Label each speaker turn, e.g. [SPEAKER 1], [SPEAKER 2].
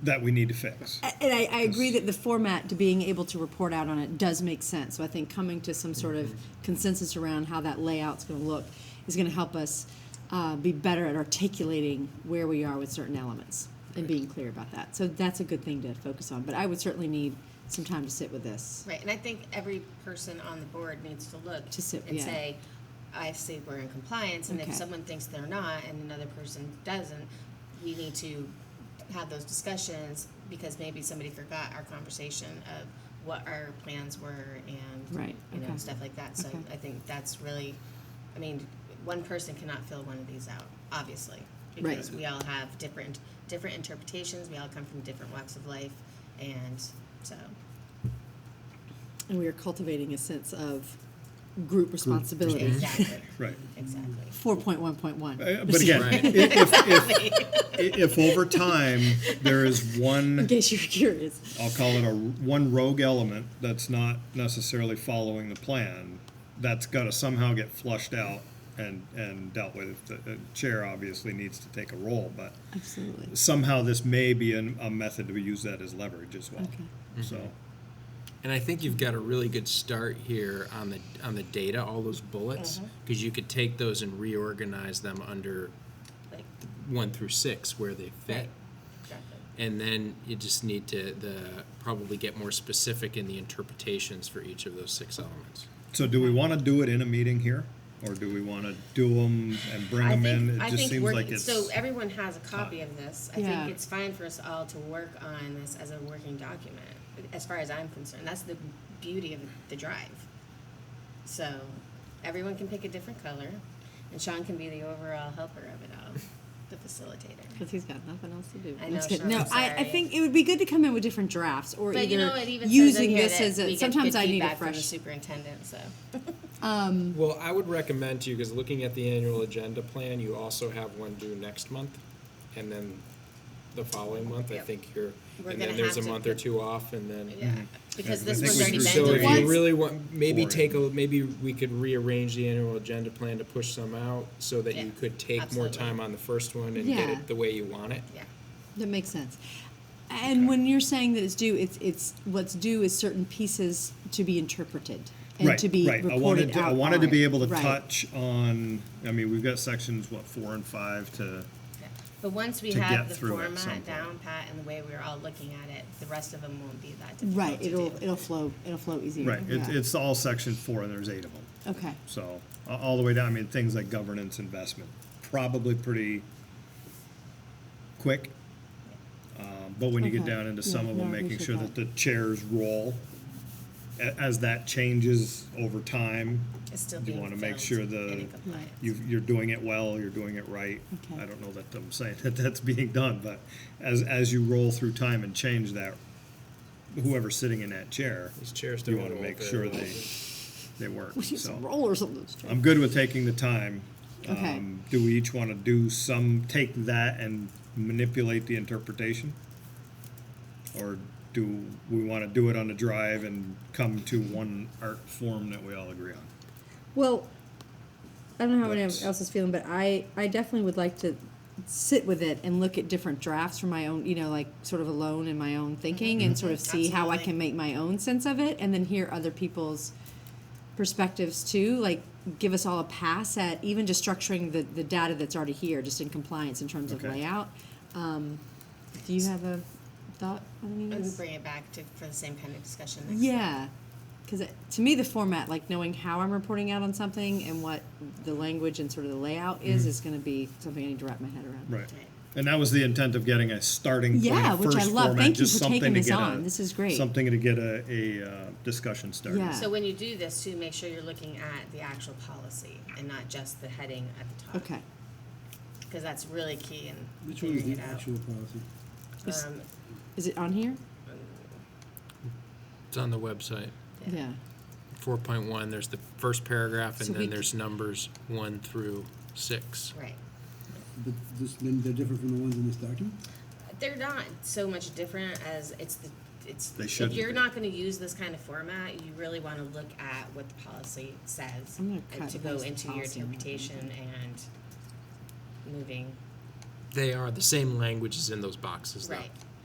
[SPEAKER 1] that we need to fix. Uh,
[SPEAKER 2] And I, I agree that the format to being able to report out on it does make sense. So I think coming to some sort of consensus around how that layout's going to look is going to help us uh, be better at articulating where we are with certain elements and being clear about that. So that's a good thing to focus on. But I would certainly need some time to sit with this.
[SPEAKER 3] Right, and I think every person on the board needs to look
[SPEAKER 2] To sit-
[SPEAKER 3] and
[SPEAKER 2] yeah.
[SPEAKER 3] say, I say we're in compliance, and
[SPEAKER 2] Okay.
[SPEAKER 3] if someone thinks they're not and another person doesn't, we need to have those discussions because maybe somebody forgot our conversation of what our plans were and
[SPEAKER 2] Right,
[SPEAKER 3] you know
[SPEAKER 2] okay.
[SPEAKER 3] stuff like that. So
[SPEAKER 2] Okay.
[SPEAKER 3] I think that's really, I mean, one person cannot fill one of these out, obviously,
[SPEAKER 2] Right.
[SPEAKER 3] because we all have different different interpretations. We all come from different walks of life, and so.
[SPEAKER 2] And we are cultivating a sense of group responsibility.
[SPEAKER 3] Exactly.
[SPEAKER 1] Right.
[SPEAKER 3] Exactly.
[SPEAKER 2] 4.1.1.
[SPEAKER 1] Uh, But again,
[SPEAKER 4] Right.
[SPEAKER 1] i- if, if, i- if over time there is
[SPEAKER 2] In
[SPEAKER 1] one,
[SPEAKER 2] case you're curious.
[SPEAKER 1] I'll call it a one rogue element that's not necessarily following the plan, that's got to somehow get flushed out and, and dealt with. The the chair obviously needs to take a role, but
[SPEAKER 2] Absolutely.
[SPEAKER 1] somehow this may be an, a method to use that as leverage as well.
[SPEAKER 2] Okay.
[SPEAKER 1] So,
[SPEAKER 4] And I think you've got a really good start here on the on the data, all those bullets,
[SPEAKER 3] Mm-hmm.
[SPEAKER 4] because you could take those and reorganize them under
[SPEAKER 3] Like,
[SPEAKER 4] one through six where they fit.
[SPEAKER 3] Right. exactly.
[SPEAKER 4] And then you just need to the probably get more specific in the interpretations for each of those six elements.
[SPEAKER 1] so do we want to do it in a meeting here? Or do we want to do them and bring
[SPEAKER 3] I
[SPEAKER 1] them
[SPEAKER 3] think,
[SPEAKER 1] in? It
[SPEAKER 3] I
[SPEAKER 1] just
[SPEAKER 3] think
[SPEAKER 1] seems
[SPEAKER 3] work-
[SPEAKER 1] like it's.
[SPEAKER 3] so everyone has a copy of this. I
[SPEAKER 2] Yeah.
[SPEAKER 3] think it's fine for us all to work on this as a working document, as far as I'm concerned. That's the beauty of the drive. So everyone can pick a different color, and Sean can be the overall helper of it all, the facilitator.
[SPEAKER 2] Because he's got nothing else to do.
[SPEAKER 3] I
[SPEAKER 2] That's
[SPEAKER 3] know,
[SPEAKER 2] good.
[SPEAKER 3] Sean,
[SPEAKER 2] No,
[SPEAKER 3] I'm
[SPEAKER 2] I, I
[SPEAKER 3] sorry.
[SPEAKER 2] think it would be good to come in with different drafts or
[SPEAKER 3] But
[SPEAKER 2] either
[SPEAKER 3] you know, it even says in
[SPEAKER 2] using
[SPEAKER 3] here
[SPEAKER 2] this
[SPEAKER 3] that
[SPEAKER 2] as
[SPEAKER 3] we
[SPEAKER 2] a.
[SPEAKER 3] get
[SPEAKER 2] Sometimes
[SPEAKER 3] good
[SPEAKER 2] I need
[SPEAKER 3] feedback
[SPEAKER 2] a
[SPEAKER 3] from the
[SPEAKER 2] fresh.
[SPEAKER 3] superintendent. So
[SPEAKER 4] Well, I would recommend to you because looking at the annual agenda plan, you also have one due next month, and then the following month. I
[SPEAKER 3] Yep.
[SPEAKER 4] think you're,
[SPEAKER 3] We're
[SPEAKER 4] and
[SPEAKER 3] gonna
[SPEAKER 4] then there's
[SPEAKER 3] have
[SPEAKER 4] a
[SPEAKER 3] to
[SPEAKER 4] month or
[SPEAKER 3] put-
[SPEAKER 4] two off, and then
[SPEAKER 3] yeah, because
[SPEAKER 1] Mm-hmm. I
[SPEAKER 3] this
[SPEAKER 1] think
[SPEAKER 3] was
[SPEAKER 1] we
[SPEAKER 3] already
[SPEAKER 1] should
[SPEAKER 3] been
[SPEAKER 1] do
[SPEAKER 4] So
[SPEAKER 1] it
[SPEAKER 4] if
[SPEAKER 3] delayed.
[SPEAKER 4] you really want, maybe
[SPEAKER 1] Four.
[SPEAKER 4] take a, maybe we could rearrange the annual agenda plan to push some out so that you
[SPEAKER 3] Yeah,
[SPEAKER 4] could take more
[SPEAKER 3] absolutely.
[SPEAKER 4] time on the first one and get
[SPEAKER 2] Yeah.
[SPEAKER 4] it the way you want it.
[SPEAKER 3] yeah.
[SPEAKER 2] That makes sense. And when you're saying that it's due, it's it's what's due is certain pieces to be interpreted and
[SPEAKER 1] right,
[SPEAKER 2] to be
[SPEAKER 1] right.
[SPEAKER 2] reported
[SPEAKER 1] I wanted to,
[SPEAKER 2] out.
[SPEAKER 1] I wanted to
[SPEAKER 2] on.
[SPEAKER 1] be able to
[SPEAKER 2] Right.
[SPEAKER 1] touch on. I mean, we've got sections what four and five to.
[SPEAKER 3] Yeah. But once we
[SPEAKER 1] to get
[SPEAKER 3] have the
[SPEAKER 1] through it at some
[SPEAKER 3] format
[SPEAKER 1] point.
[SPEAKER 3] down pat and the way we're all looking at it, the rest of them won't be that difficult
[SPEAKER 2] Right.
[SPEAKER 3] to
[SPEAKER 2] It'll
[SPEAKER 3] do.
[SPEAKER 2] it'll flow it'll flow easier.
[SPEAKER 1] Right. It,
[SPEAKER 2] Yeah.
[SPEAKER 1] It's all section four, and there's eight of them.
[SPEAKER 2] okay.
[SPEAKER 1] So a- all the way down. I mean, things like governance, investment, probably pretty quick. Um, but when you get
[SPEAKER 2] Okay.
[SPEAKER 1] down into
[SPEAKER 2] Yeah,
[SPEAKER 1] some of
[SPEAKER 2] no, I
[SPEAKER 1] them, making
[SPEAKER 2] appreciate
[SPEAKER 1] sure
[SPEAKER 2] that.
[SPEAKER 1] that the chair's role, a- as that changes over time,
[SPEAKER 3] It's still
[SPEAKER 1] you
[SPEAKER 3] being
[SPEAKER 1] want to make
[SPEAKER 3] filled
[SPEAKER 1] sure
[SPEAKER 3] and
[SPEAKER 1] the
[SPEAKER 3] in compliance.
[SPEAKER 1] you you're doing it well, you're doing it right.
[SPEAKER 2] Okay.
[SPEAKER 1] I don't know that I'm saying that that's being done, but as as you roll through time and change that, whoever's sitting in that chair,
[SPEAKER 4] These chairs
[SPEAKER 1] you
[SPEAKER 4] don't
[SPEAKER 1] want to
[SPEAKER 4] roll
[SPEAKER 1] make
[SPEAKER 4] very
[SPEAKER 1] sure
[SPEAKER 4] well.
[SPEAKER 1] they they work.
[SPEAKER 2] We should
[SPEAKER 1] So
[SPEAKER 2] roll or something.
[SPEAKER 1] I'm good with taking the time.
[SPEAKER 2] Okay.
[SPEAKER 1] Um, do we each want to do some take that and manipulate the interpretation, or do we want to do it on the drive and come to one art form that we all agree on?
[SPEAKER 2] Well, I don't know how anyone
[SPEAKER 1] But-
[SPEAKER 2] else is feeling, but I, I definitely would like to sit with it and look at different drafts for my own, you know, like sort of alone in my own thinking and sort of see how I can
[SPEAKER 3] Absolutely.
[SPEAKER 2] make my own sense of it and then hear other people's perspectives too. Like, give us all a pass at even just structuring the, the data that's already here, just in compliance in terms of
[SPEAKER 1] Okay.
[SPEAKER 2] layout. Um, do you have a thought on any of
[SPEAKER 3] And we
[SPEAKER 2] this?
[SPEAKER 3] bring it back to, for the same kind of discussion next time.
[SPEAKER 2] Yeah, because to me, the format, like knowing how I'm reporting out on something and what the language and sort of the layout is, is going to be something I need to wrap my head around.
[SPEAKER 1] Right.
[SPEAKER 3] Right.
[SPEAKER 1] And that was the intent of getting a starting point.
[SPEAKER 2] Yeah, which I
[SPEAKER 1] first
[SPEAKER 2] love.
[SPEAKER 1] format,
[SPEAKER 2] Thank you
[SPEAKER 1] just
[SPEAKER 2] for
[SPEAKER 1] something
[SPEAKER 2] taking
[SPEAKER 1] to
[SPEAKER 2] this
[SPEAKER 1] get
[SPEAKER 2] on.
[SPEAKER 1] a-
[SPEAKER 2] This is great.
[SPEAKER 1] Something to get a, a uh, discussion started.
[SPEAKER 2] Yeah.
[SPEAKER 3] So when you do this, too, make sure you're looking at the actual policy and not just the heading at the top.
[SPEAKER 2] Okay.
[SPEAKER 3] Because that's really key in
[SPEAKER 5] Which one is
[SPEAKER 3] figuring
[SPEAKER 5] the
[SPEAKER 3] it out.
[SPEAKER 5] actual policy?
[SPEAKER 2] Is-
[SPEAKER 3] Um,
[SPEAKER 2] Is it on here?
[SPEAKER 4] It's on the website.
[SPEAKER 3] Yeah.
[SPEAKER 4] Four point one, there's the first paragraph
[SPEAKER 2] So
[SPEAKER 4] and
[SPEAKER 2] we
[SPEAKER 4] then
[SPEAKER 2] c-
[SPEAKER 4] there's numbers one through six.
[SPEAKER 3] Right.
[SPEAKER 5] But this, then they're different from the ones in this document?
[SPEAKER 3] They're not so much different as it's the, it's.
[SPEAKER 1] They
[SPEAKER 3] should.
[SPEAKER 1] shouldn't
[SPEAKER 3] If you're
[SPEAKER 1] be.
[SPEAKER 3] not gonna use this kind of format, you really wanna look at what the policy says.
[SPEAKER 2] I'm gonna
[SPEAKER 3] and
[SPEAKER 2] cut
[SPEAKER 3] To go
[SPEAKER 2] most of the
[SPEAKER 3] into your
[SPEAKER 2] policy and write it
[SPEAKER 3] interpretation and moving,
[SPEAKER 4] They are the same languages in those boxes though.
[SPEAKER 3] right,